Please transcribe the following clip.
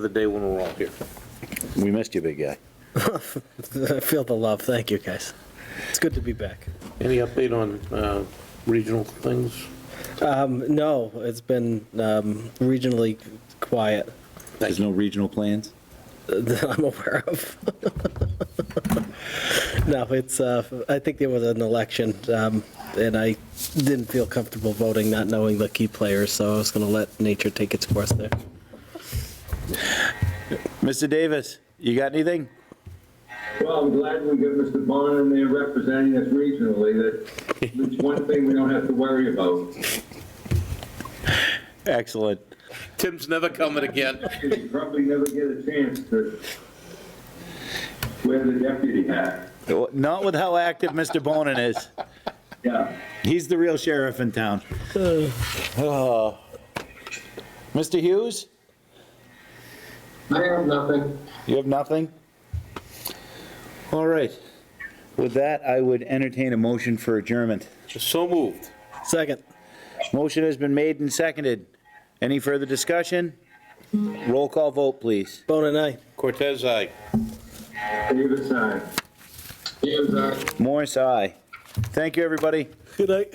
the day when we're all here. We missed you, big guy. I feel the love. Thank you, guys. It's good to be back. Any update on uh, regional things? Um, no, it's been um, regionally quiet There's no regional plans? that I'm aware of. no, it's. Uh, I think there was an election, um, and I didn't feel comfortable voting, not knowing the key players. So I was going to let nature take its course there. Mr. Davis, you got anything? Well, I'm glad we got Mr. Bond in there representing us regionally, that it's one thing we don't have to worry about. Excellent. Tim's never coming again. You probably never get a chance to wear the deputy hat. Not with how active Mr. Bonin is. Yeah. He's the real sheriff in town. Oh. Mr. Hughes, I have nothing. you have nothing? All right. With that, I would entertain a motion for adjournment. So moved. Second. Motion has been made and seconded. Any further discussion? Roll call vote, please. Bone and I. Cortez, aye. Davis, aye. Davis, aye. uh, Morris, aye. Thank you, everybody. Good night.